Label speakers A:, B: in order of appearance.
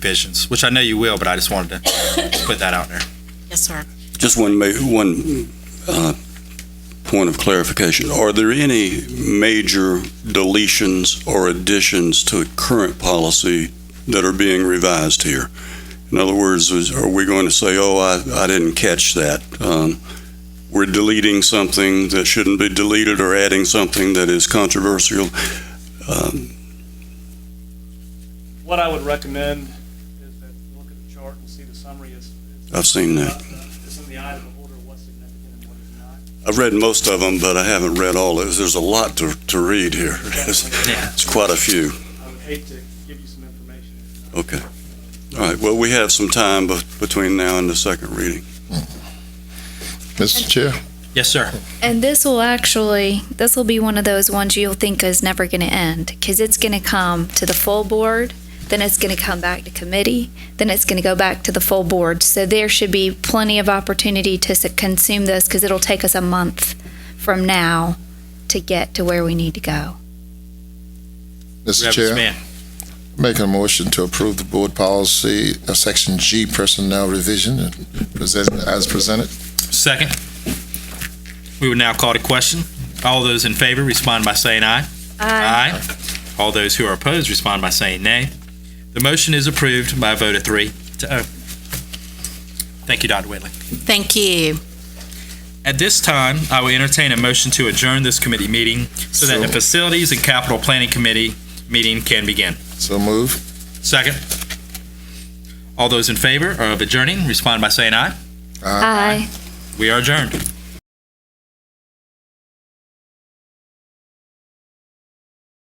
A: visions, which I know you will, but I just wanted to put that out there.
B: Yes, sir.
C: Just one, ma- one uh, point of clarification. Are there any major deletions or additions to current policy that are being revised here? In other words, is- are we going to say, oh, I, I didn't catch that? Um, We're deleting something that shouldn't be deleted or adding something that is controversial? Um,
D: What I would recommend is that you look at the chart and see the summary is. is-
C: I've seen that.
D: It's in the item of order, what's significant and what is not.
C: I've read most of them, but I haven't read all of it. There's a lot to, to read here. It's it's quite a few.
D: I would hate to give you some information. if not.
C: Okay. All right, well, we have some time bef- between now and the second reading.
E: Mr. Chair,
A: Yes, sir.
F: And this will actually, this will be one of those ones you'll think is never going to end because it's going to come to the full board, then it's going to come back to committee, then it's going to go back to the full board. So there should be plenty of opportunity to s- consume this because it'll take us a month from now to get to where we need to go.
E: Mr.
A: Reverend
E: Chair,
A: Span.
E: make a motion to approve the board policy, uh, section G personnel revision and presented, as presented.
A: Second. We would now call to question. All those in favor respond by saying aye. Aye. All those who are opposed respond by saying nay. The motion is approved by a vote of three to oh. Thank you, Dr. Whitley.
B: Thank you.
A: At this time, I will entertain a motion to adjourn this committee meeting so that the
E: So-
A: Facilities and Capital Planning Committee meeting can begin.
E: So move.
A: Second. All those in favor of adjourning respond by saying aye.
F: Aye.
A: We are adjourned.